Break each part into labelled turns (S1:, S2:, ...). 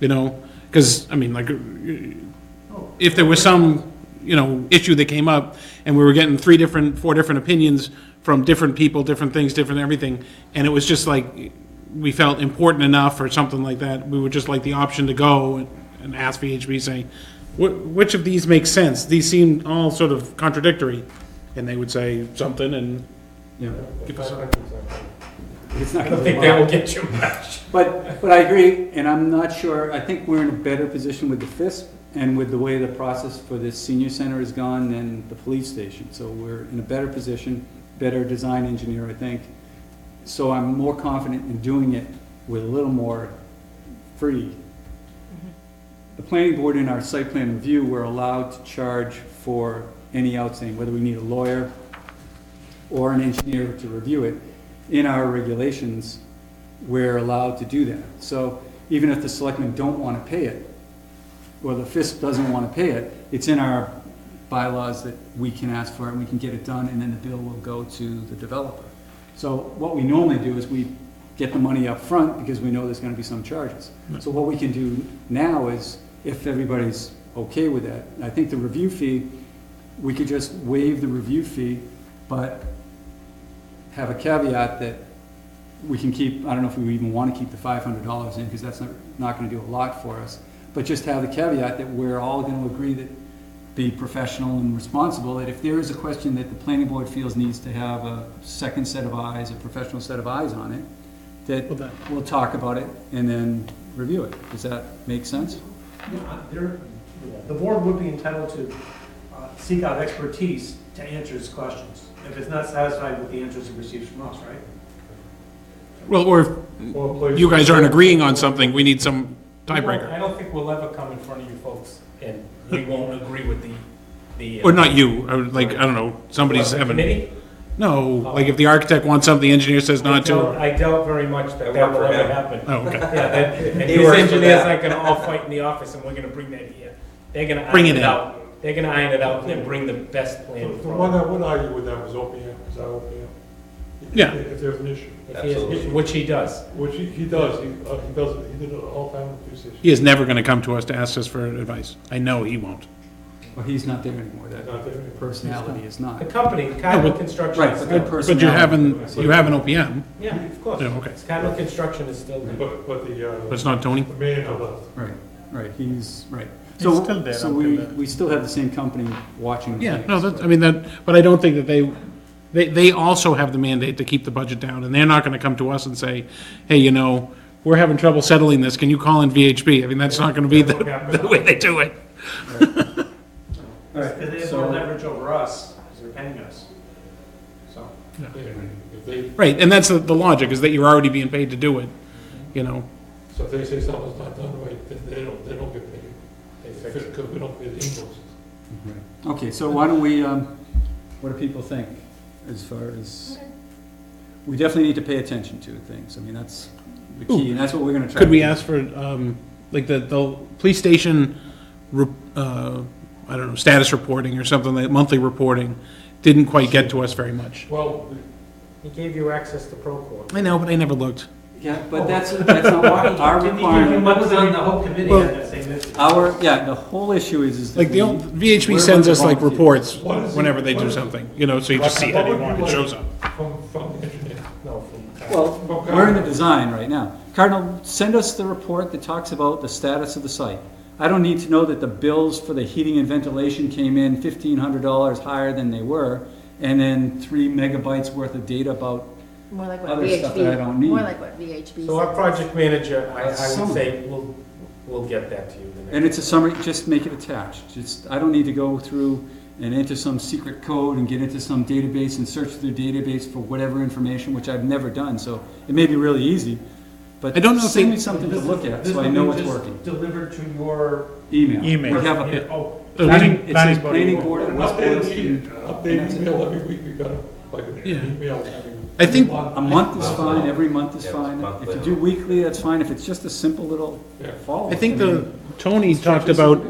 S1: you know, because, I mean, like, if there was some, you know, issue that came up, and we were getting three different, four different opinions from different people, different things, different everything, and it was just like, we felt important enough or something like that, we would just like the option to go and- and ask VHB, saying, "Wh- which of these makes sense? These seem all sort of contradictory, and they would say something, and, you know, give us-
S2: It's not
S3: I
S2: gonna
S3: don't think
S2: be
S3: that will
S2: long.
S3: get you much.
S2: But, but I agree, and I'm not sure, I think we're in a better position with the FISP and with the way the process for this senior center has gone than the police station. So we're in a better position, better design engineer, I think. So I'm more confident in doing it with a little more free. The planning board in our site plan review, we're allowed to charge for any outstanding, whether we need a lawyer or an engineer to review it. In our regulations, we're allowed to do that. So even if the selectmen don't want to pay it, or the FISP doesn't want to pay it, it's in our bylaws that we can ask for it, and we can get it done, and then the bill will go to the developer. So what we normally do is we get the money up front because we know there's gonna be some charges. So what we can do now is, if everybody's okay with that, I think the review fee, we could just waive the review fee, but have a caveat that we can keep, I don't know if we even wanna keep the five hundred dollars in, because that's not, not gonna do a lot for us. But just have the caveat that we're all gonna agree that, be professional and responsible, that if there is a question that the planning board feels needs to have a second set of eyes, a professional set of eyes on it,
S1: Well,
S2: that
S1: that-
S2: we'll talk about it and then review it. Does that make sense?
S3: You know, there- The board would be entitled to uh, seek out expertise to answer its questions, if it's not satisfied with the answers it receives from us, right?
S1: well, or if you guys aren't agreeing on something, we need some tiebreaker.
S4: I don't think we'll ever come in front of you folks and we won't agree with the, the. uh,
S1: Or not you, I would like, I don't know, somebody's
S4: the
S1: having,
S4: Committee?
S1: no, like if the architect wants something, the engineer says not
S4: I
S1: to.
S4: doubt- I doubt very much that that
S5: worked
S4: will
S5: for
S4: ever
S5: him.
S4: happen.
S1: Oh, okay.
S4: Yeah, that- and
S5: He
S4: these
S5: works for
S4: engineers
S5: that.
S4: aren't gonna all fight in the office and we're gonna bring that here. They're gonna
S1: Bring
S4: iron
S1: it in.
S4: it out. They're gonna iron it out and then bring the best plan
S6: The the one
S4: forward.
S6: I would argue with that was OPM, is that OPM? If-
S1: Yeah.
S6: If there's an issue,
S4: If he has-
S5: Absolutely.
S4: Which he does.
S6: which he, he does, he, uh, he does, it- he did it all the time with police station.
S1: He is never gonna come to us to ask us for advice. I know he won't.
S2: Well, he's not there anymore,
S6: He's
S2: that
S6: not there.
S2: personality is
S4: The
S2: not.
S4: company, Cardinal
S1: but-
S4: Construction.
S2: Right, it's
S4: is
S2: a
S4: still-
S2: good
S1: But
S2: personality.
S1: you haven't, you have an OPM,
S4: Yeah, of course.
S1: Yeah, okay.
S4: Cardinal Construction is still there.
S6: But, but the,
S1: but it's
S6: uh,
S1: not Tony.
S6: the manager left.
S2: Right, right, he's, right.
S7: He's
S2: So,
S7: still there,
S2: so
S7: I'll
S2: we,
S7: do that.
S2: we still have the same company watching.
S1: Yeah,
S2: things,
S1: no, that's, I
S2: but-
S1: mean, that, but I don't think that they, they, they also have the mandate to keep the budget down, and they're not gonna come to us and say, hey, you know, we're having trouble settling this, can you call in VHB? I mean, that's not gonna be the, the way they do it.
S3: Because they have more leverage over us, because they're paying us. So,
S6: If they,
S1: Right, and that's the, the logic, is that you're already being paid to do it, you know?
S6: so if they say something's not done right, then they don't, they don't get paid. They fix it, because we don't pay the invoices.
S2: Okay, so why don't we, um, what do people think as far as? We definitely need to pay attention to things. I mean, that's the key, and that's what we're gonna try.
S1: Could
S2: to
S1: we
S2: do.
S1: ask for, um, like, the, the police station, re- uh, I don't know, status reporting or something, like monthly reporting, didn't quite get to us very much.
S6: Well,
S4: He gave you access to Procore.
S1: I know, but I never looked.
S2: Yeah, but that's, that's not our, our
S3: didn't even
S2: requirement.
S3: what was on the whole committee
S1: Well-
S3: on that same issue?
S2: Our, yeah, the whole issue is, is that
S1: Like, the,
S2: we-
S1: old- VHB
S2: Where
S1: sends
S2: were the
S1: us, like,
S2: volunteers?
S1: reports
S6: What is it-
S1: whenever they
S6: what
S1: do
S6: is it?
S1: something, you know, so you just see it
S6: What would
S1: anymore,
S6: you
S1: it shows
S6: like
S1: up.
S6: From, from the engineer.
S4: No, from.
S2: Well,
S6: Okay.
S2: we're in the design right now. Cardinal, send us the report that talks about the status of the site. I don't need to know that the bills for the heating and ventilation came in fifteen hundred dollars higher than they were, and then three megabytes worth of data about,
S7: More like what
S2: Other stuff that I don't
S7: VHB,
S2: need.
S7: more like what VHB.
S4: So our
S7: said.
S4: project manager, I, I
S2: Some.
S4: would say, we'll, we'll get that to you the next.
S2: and it's a summary, just make it attached. Just, I don't need to go through and enter some secret code and get into some database and search through database for whatever information, which I've never done, so it may be really easy, but
S1: I don't know if
S2: send
S1: they-
S2: me something to
S3: This is-
S2: look at,
S3: this
S2: so I
S3: will be
S2: know it's
S3: just
S2: working.
S3: Delivered to your.
S2: Email.
S7: Email.
S2: We have a-
S3: Oh,
S1: So we didn't-
S2: Planning- It
S7: Planning's
S2: says
S7: body
S2: planning
S7: will-
S2: board and West
S6: Updated
S2: Boylston.
S6: e-
S2: and that's
S6: updated
S2: it.
S6: email every week, we got a, like, an
S1: Yeah.
S6: email. every-
S1: I think-
S2: A month is fine, every month is
S5: Yeah,
S2: fine.
S5: monthly.
S2: If you do weekly, that's fine. If it's just a simple little
S6: Yeah.
S2: follow-up.
S1: I think
S2: mean,
S1: the, Tony talked about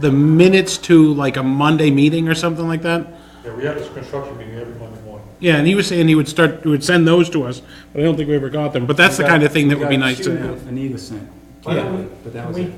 S1: the minutes to, like, a Monday meeting or something like that.
S6: Yeah, we have this construction meeting every Monday morning.
S1: Yeah, and he was saying he would start, he would send those to us, but I don't think we ever got them, but that's the
S2: we got-
S1: kind of thing that
S2: we
S1: would be
S2: got
S1: nice to
S2: two
S1: have.
S2: that Anita sent
S4: Why don't we-
S2: But that
S4: can
S2: was
S4: we
S2: it.